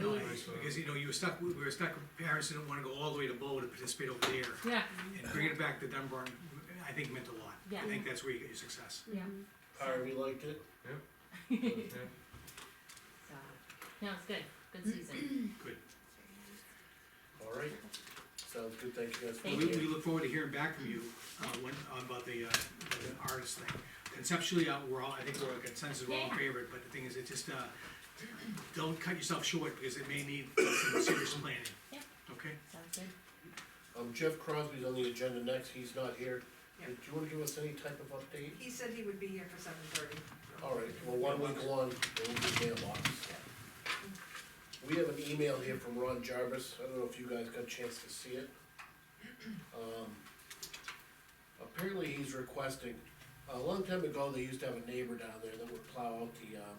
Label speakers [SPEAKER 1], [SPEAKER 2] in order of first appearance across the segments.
[SPEAKER 1] choice, because, you know, you were stuck, we were stuck, parents didn't wanna go all the way to Bow to participate over there.
[SPEAKER 2] Yeah,
[SPEAKER 1] And bringing it back to Dunbar, I think meant a lot.
[SPEAKER 2] Yeah.
[SPEAKER 1] I think that's where you get your success.
[SPEAKER 2] yeah,
[SPEAKER 3] Alright, we liked it.
[SPEAKER 2] so, uh, no, it's good, good season.
[SPEAKER 1] Good.
[SPEAKER 3] Alright, sounds good, thank you guys. for
[SPEAKER 2] Thank
[SPEAKER 1] We,
[SPEAKER 2] you.
[SPEAKER 1] we look forward to hearing back from you, uh, when, about the, uh, the artist thing. Conceptually, uh, we're all, I think we're a consensus, we're all in
[SPEAKER 2] Yeah.
[SPEAKER 1] favor, but the thing is, it just, uh, don't cut yourself short, because it may need some serious planning.
[SPEAKER 2] Yeah.
[SPEAKER 1] Okay?
[SPEAKER 2] Sounds good.
[SPEAKER 3] Um, Jeff Crosby's on the agenda next, he's not here.
[SPEAKER 4] Yeah.
[SPEAKER 3] Do you wanna give us any type of update?
[SPEAKER 4] He said he would be here for seven thirty.
[SPEAKER 3] Alright, well, one week one, and we'll do mailbox. We have an email here from Ron Jarvis, I don't know if you guys got a chance to see it. Um, Apparently he's requesting, a long time ago, they used to have a neighbor down there that would plow out the, um,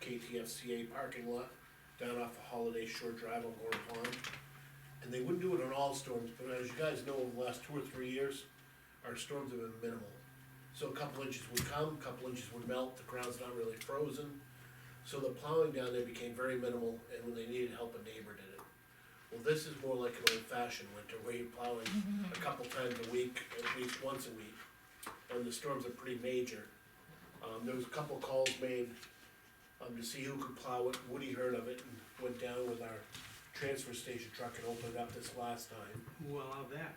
[SPEAKER 3] KTFCA parking lot down off of Holiday Shore Drive on Gore Pond. And they wouldn't do it on all storms, but as you guys know, over the last two or three years, our storms have been minimal. So a couple inches would come, a couple inches would melt, the ground's not really frozen. So the plowing down there became very minimal, and when they needed help, a neighbor did it. Well, this is more like an old fashioned winter, where you're plowing a couple times a week, at least once a week, and the storms are pretty major. Um, there was a couple calls made, um, to see who could plow it, Woody heard of it, and went down with our transfer station truck and opened it up this last time.
[SPEAKER 1] Who allowed that?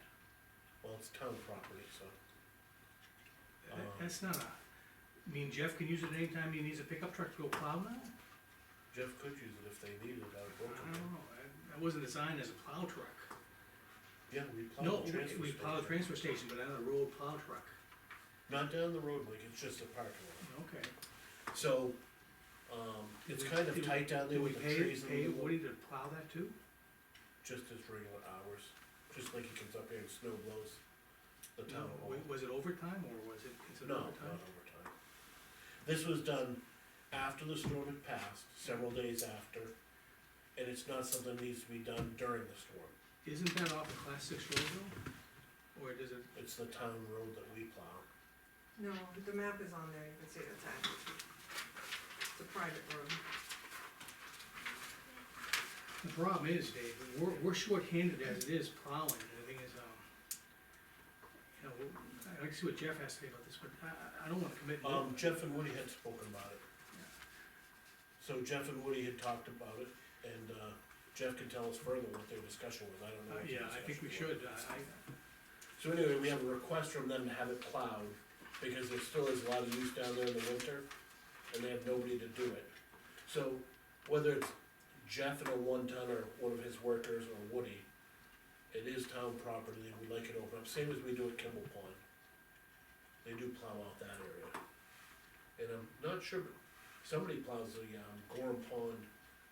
[SPEAKER 3] Well, it's town property, so.
[SPEAKER 1] That- That's not a, I mean, Jeff can use it anytime he needs a pickup truck to go plow now?
[SPEAKER 3] Jeff could use it if they needed it out of
[SPEAKER 1] I don't
[SPEAKER 3] Brooklyn.
[SPEAKER 1] know, that- that wasn't designed as a plow truck.
[SPEAKER 3] Yeah, we plow
[SPEAKER 1] No,
[SPEAKER 3] the
[SPEAKER 1] we-
[SPEAKER 3] Oh, transfer
[SPEAKER 1] we plow the
[SPEAKER 3] station.
[SPEAKER 1] transfer station, but not a road plow truck.
[SPEAKER 3] Not down the road, like, it's just a parking lot.
[SPEAKER 1] Okay.
[SPEAKER 3] So, um, it's
[SPEAKER 1] Did we-
[SPEAKER 3] kind of
[SPEAKER 1] did we-
[SPEAKER 3] tight down there
[SPEAKER 1] did we
[SPEAKER 3] with the
[SPEAKER 1] pay-
[SPEAKER 3] trees and
[SPEAKER 1] Pay
[SPEAKER 3] the wood,
[SPEAKER 1] Woody to plow that too?
[SPEAKER 3] just as regular hours, just like he comes up here and snow blows the town
[SPEAKER 1] No,
[SPEAKER 3] hall.
[SPEAKER 1] wa- was it overtime or was it, is it
[SPEAKER 3] No, not
[SPEAKER 1] overtime?
[SPEAKER 3] overtime. This was done after the storm had passed, several days after, and it's not something that needs to be done during the storm.
[SPEAKER 1] Isn't that off a class six road though? Or does it,
[SPEAKER 3] It's the town road that we plow.
[SPEAKER 4] No, the map is on there, you can see the time. It's a private road.
[SPEAKER 1] the problem is, Dave, we're, we're shorthanded as it is plowing, and the thing is, um, you know, I'd like to see what Jeff has to say about this, but I- I, I don't wanna commit. no-
[SPEAKER 3] Um, Jeff and Woody had spoken about it. So Jeff and Woody had talked about it, and, uh, Jeff can tell us further what their discussion was, I don't know.
[SPEAKER 1] Uh,
[SPEAKER 3] what their
[SPEAKER 1] yeah, I think we
[SPEAKER 3] discussion was.
[SPEAKER 1] should, I, I,
[SPEAKER 3] So anyway, we have a request from them to have it plowed, because there still is a lot of use down there in the winter, and they have nobody to do it. So whether it's Jeff and a one ton or one of his workers or Woody, it is town property, and we like it open up, same as we do at Kimball Pond. They do plow out that area. And I'm not sure, but somebody plows the, um, Gorham Pond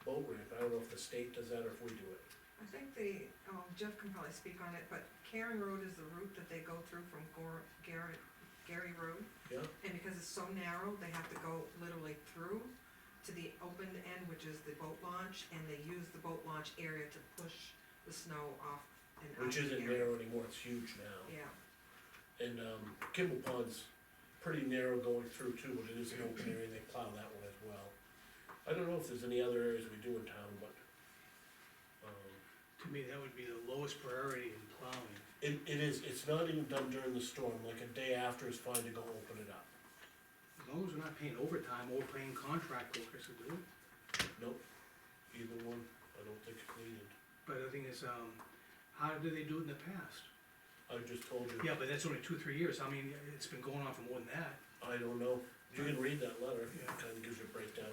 [SPEAKER 3] boat ramp, I don't know if the state does that or if we do it.
[SPEAKER 4] I think the, oh, Jeff can probably speak on it, but Karen Road is the route that they go through from Gor, Garrett, Gary Road.
[SPEAKER 3] Yeah.
[SPEAKER 4] And because it's so narrow, they have to go literally through to the open end, which is the boat launch, and they use the boat launch area to push the snow off and out of
[SPEAKER 3] Which
[SPEAKER 4] the
[SPEAKER 3] isn't
[SPEAKER 4] area.
[SPEAKER 3] narrow anymore, it's huge now.
[SPEAKER 4] Yeah,
[SPEAKER 3] And um, Kimball Pond's pretty narrow going through too, but it is an open area, they plow that one as well. I don't know if there's any other areas we do in town, but, um,
[SPEAKER 1] to me, that would be the lowest priority in plowing.
[SPEAKER 3] it, it is, it's not even done during the storm, like a day after is fine to go open it up.
[SPEAKER 1] As long as we're not paying overtime or paying contract workers to do it.
[SPEAKER 3] Nope, either one, I don't think it's needed.
[SPEAKER 1] But the thing is, um, how did they do it in the past?
[SPEAKER 3] I just told you,
[SPEAKER 1] Yeah, but that's only two, three years, I mean, it's been going on for more than that.
[SPEAKER 3] I don't know, you can read that letter, it
[SPEAKER 1] Yeah.
[SPEAKER 3] kinda gives you a breakdown.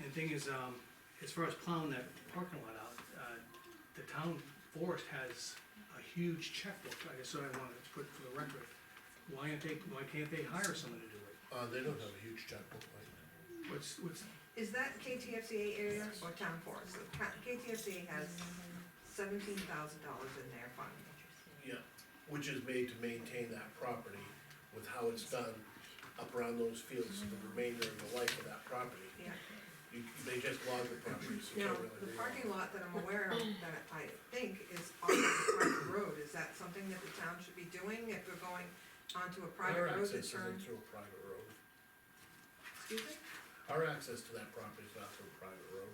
[SPEAKER 1] And the thing is, um, as far as plowing that parking lot out, uh, the town forest has a huge checkbook, I guess, so I wanted to put for the record. Why aren't they, why can't they hire someone to do it?
[SPEAKER 3] Uh, they don't have a huge checkbook like that.
[SPEAKER 1] What's, what's,
[SPEAKER 4] is that KTFCA area or town forest? The ca- KTFCA has seventeen thousand dollars in their fund.
[SPEAKER 3] Yeah, which is made to maintain that property with how it's done up around those fields, the remainder of the life of that property.
[SPEAKER 4] Yeah,
[SPEAKER 3] You, they just log the property, so you
[SPEAKER 4] now,
[SPEAKER 3] can't really.
[SPEAKER 4] the
[SPEAKER 3] read
[SPEAKER 4] parking
[SPEAKER 3] it.
[SPEAKER 4] lot that I'm aware of, that I think is off the private road, is that something that the town should be doing if they're going onto a
[SPEAKER 3] Our
[SPEAKER 4] private road that
[SPEAKER 3] access isn't
[SPEAKER 4] turns?
[SPEAKER 3] Through a private road.
[SPEAKER 4] Excuse me?
[SPEAKER 3] Our access to that property is not through a private road.